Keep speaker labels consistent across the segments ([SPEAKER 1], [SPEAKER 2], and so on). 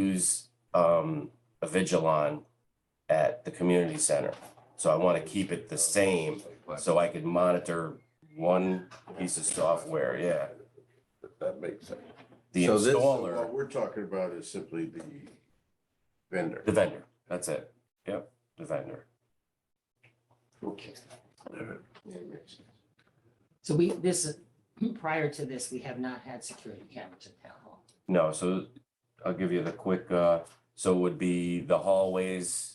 [SPEAKER 1] use um a Vigilon at the community center. So I want to keep it the same so I could monitor one piece of software, yeah.
[SPEAKER 2] That makes sense.
[SPEAKER 1] The
[SPEAKER 3] So this-
[SPEAKER 2] So
[SPEAKER 1] installer,
[SPEAKER 2] What we're talking about is simply the vendor.
[SPEAKER 1] the vendor, that's it. Yep, the vendor.
[SPEAKER 2] Okay. All right. That makes sense.
[SPEAKER 4] So we, this, is prior to this, we have not had security cameras at town hall.
[SPEAKER 1] No, so I'll give you the quick, uh, so it would be the hallways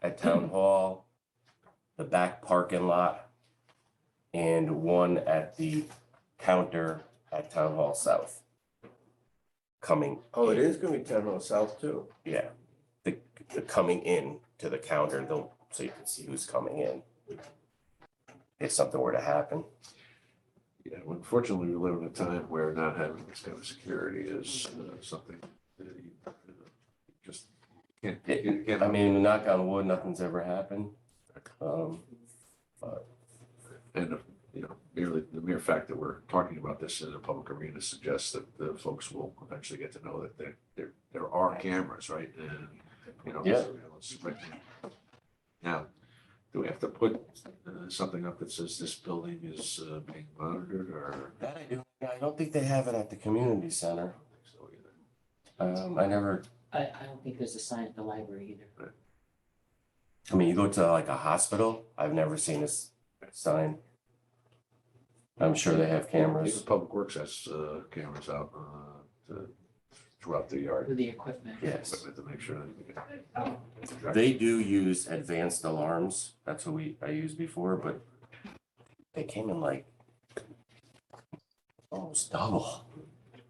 [SPEAKER 1] at Town Hall, the back parking lot, and one at the counter at Town Hall South. Coming,
[SPEAKER 2] Oh, it is gonna be town hall south too.
[SPEAKER 1] yeah, the, the coming in to the counter, though, so you can see who's coming in. If something were to happen,
[SPEAKER 3] Yeah, well, unfortunately, we live in a time where not having this kind of security is uh, something that you uh, just can't, you can't.
[SPEAKER 1] I mean, knock on wood, nothing's ever happened. Um,
[SPEAKER 3] And, you know, merely, the mere fact that we're talking about this in a public arena suggests that the folks will eventually get to know that there, there, there are cameras, right? And, you know.
[SPEAKER 1] Yeah.
[SPEAKER 3] surveillance, right? Now, do we have to put uh, something up that says this building is uh, being monitored or?
[SPEAKER 1] that I do, I don't think they have it at the community center.
[SPEAKER 3] So either-
[SPEAKER 1] Um, I never,
[SPEAKER 4] I, I don't think there's a sign at the library either.
[SPEAKER 1] I mean, you go to like a hospital, I've never seen this sign. I'm sure they have
[SPEAKER 3] Even
[SPEAKER 1] cameras.
[SPEAKER 3] Public Works has uh, cameras out uh, to- throughout the yard.
[SPEAKER 4] With the equipment.
[SPEAKER 1] Yes,
[SPEAKER 3] equipment To make sure that.
[SPEAKER 1] they do use advanced alarms. That's what we, I used before, but they came in like almost double.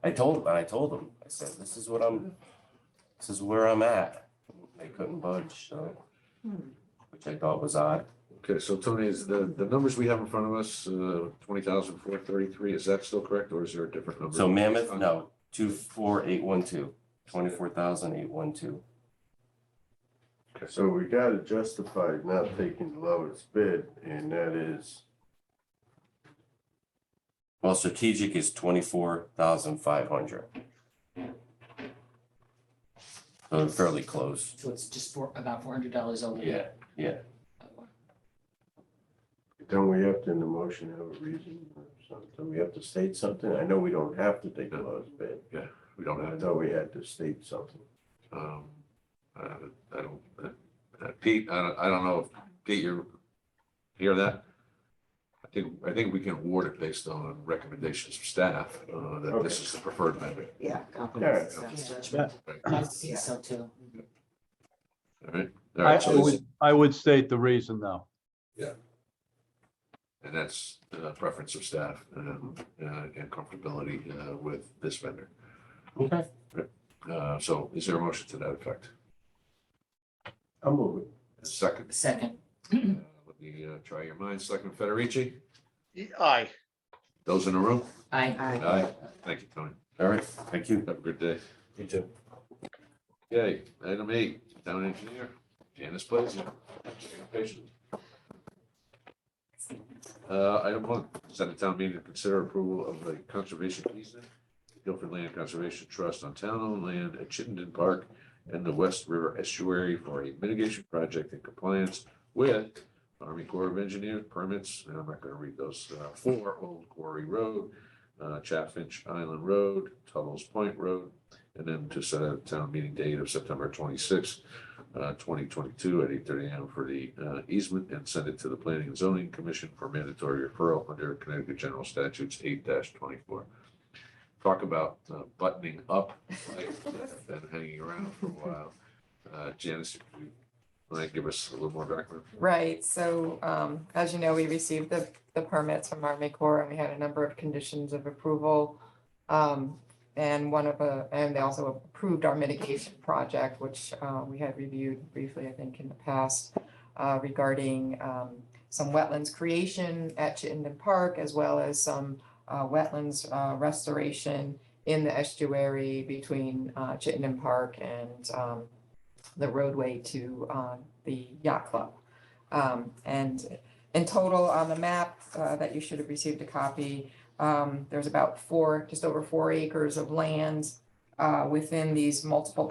[SPEAKER 1] I told, I told them, I said, this is what I'm, this is where I'm at. They couldn't budge, so, which I thought was odd.
[SPEAKER 3] Okay, so Tony, is the, the numbers we have in front of us, uh, twenty thousand four thirty-three, is that still correct or is there a different number?
[SPEAKER 1] So Mammoth, no, two, four, eight, one, two, twenty-four thousand, eight, one, two.
[SPEAKER 2] So we gotta justify not taking the lowest bid and that is,
[SPEAKER 1] Well, strategic is twenty-four thousand five hundred. So fairly close.
[SPEAKER 4] So it's just for about four hundred dollars over.
[SPEAKER 1] Yeah,
[SPEAKER 2] don't we have to in the motion have a reason or something? We have to state something? I know we don't have to take the lowest bid.
[SPEAKER 3] We don't
[SPEAKER 2] I
[SPEAKER 3] have,
[SPEAKER 2] thought we had to state something.
[SPEAKER 3] um, uh, I don't, uh, uh, Pete, I don't, I don't know, if Pete, you hear that? I think, I think we can award it based on recommendations of staff, uh, that this
[SPEAKER 2] Okay.
[SPEAKER 3] is the preferred method.
[SPEAKER 5] Yeah.
[SPEAKER 2] Alright.
[SPEAKER 5] confidence in staff's judgment.
[SPEAKER 4] I see so too.
[SPEAKER 3] All right. All
[SPEAKER 6] I
[SPEAKER 3] right,
[SPEAKER 6] I
[SPEAKER 3] so this-
[SPEAKER 6] would, I would state the reason though.
[SPEAKER 3] And that's uh, preference of staff um, uh, and comfortability uh, with this vendor.
[SPEAKER 1] okay,
[SPEAKER 3] Uh, So is there a motion to that effect?
[SPEAKER 2] I'm moving.
[SPEAKER 3] Second,
[SPEAKER 4] Second,
[SPEAKER 3] uh, let me uh, try your minds. Selectman Federici,
[SPEAKER 7] Aye.
[SPEAKER 3] those in the room?
[SPEAKER 4] I.
[SPEAKER 5] Aye.
[SPEAKER 3] Aye. Thank you, Tony.
[SPEAKER 1] all right, thank you.
[SPEAKER 3] Have a good day.
[SPEAKER 2] You too.
[SPEAKER 3] Okay, item eight, town engineer, Janice Blazer. Uh, item one, send a town meeting to consider approval of the conservation easement, Guilford Land Conservation Trust on town-owned land at Chittenden Park and the West River Estuary for a mitigation project in compliance with Army Corps of Engineers permits, and I'm not gonna read those, uh, for Old Quarry Road, uh, Chaffinch Island Road, Tuttle's Point Road, and then to set a town meeting date of September twenty-sixth, uh, twenty twenty-two at eight thirty AM for the, uh, easement and send it to the Planning and Zoning Commission for mandatory referral under Connecticut General Statutes eight twenty-four. Talk about uh, buttoning up, like, been hanging around for a while. Uh, Janice, if you want to give us a little more background?
[SPEAKER 5] Right, so um, as you know, we received the, the permits from Army Corps and we had a number of conditions of approval. Um, and one of a, and they also approved our mitigation project, which uh, we had reviewed briefly, I think, in the past. Uh, regarding um, some wetlands creation at Chittenden Park as well as some uh, wetlands uh, restoration. In the estuary between uh, Chittenden Park and um, the roadway to uh, the yacht club. Um, and in total, on the map, uh, that you should have received a copy, um, there's about four, just over four acres of land, uh, within these multiple